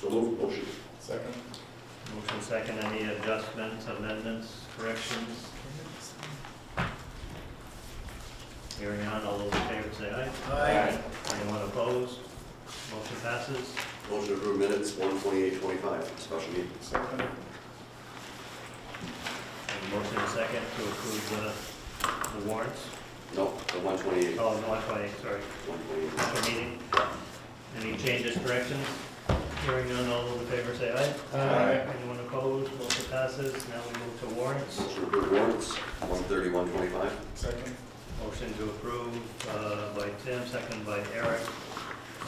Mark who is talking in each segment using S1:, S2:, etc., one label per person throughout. S1: So move, motion.
S2: Second.
S3: Motion second, any adjustments, amendments, corrections? Hearing none, all those in favor say aye.
S2: Aye.
S3: Anyone opposed? Motion passes.
S1: Motion to approve minutes, one twenty-eight twenty-five, special meeting.
S2: Second.
S3: And motion second to approve the, the warrants.
S1: No, the one twenty-eight,
S3: Oh, no, that's why, sorry,
S1: one twenty-eight.
S3: special meeting. Any changes, corrections? Hearing none, all those in favor say aye.
S2: Aye.
S3: Anyone opposed? Motion passes. Now we move to warrants.
S1: Motion to approve warrants, one thirty-one twenty-five.
S2: Second.
S3: Motion to approve uh, by Tim, second by Eric.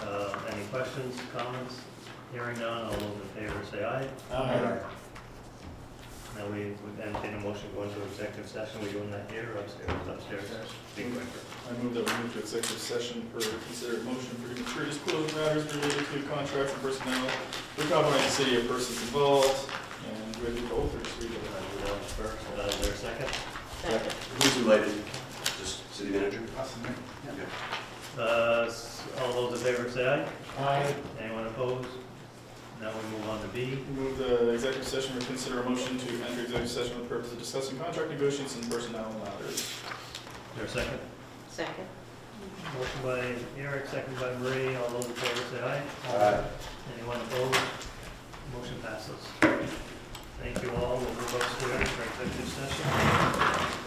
S3: Uh, Any questions, comments? Hearing none, all those in favor say aye.
S2: Aye.
S3: Now we would entertain a motion going to executive session, we doing that here or upstairs? Upstairs. Be quicker.
S2: I move that we move to executive session for considered motion for premature disclosure matters related to contracts and personnel. We're covering the city of persons involved, and we're going to go through this reading.
S3: Uh, we'll go first. Uh, Is there a second?
S4: Second.
S1: Who's related? Just city manager? Okay.
S3: Uh, s- All those in favor say aye.
S2: Aye.
S3: Anyone opposed? Now we move on to B.
S2: Move the executive session for consider a motion to enter executive session for the purpose of discussing contract negotiations and personnel matters.
S3: Is there a second?
S4: Second.
S3: Motion by Eric, second by Marie, all those in favor say aye.
S1: Aye.
S3: Anyone opposed? Motion passes. Thank you all, we'll move upstairs for executive session.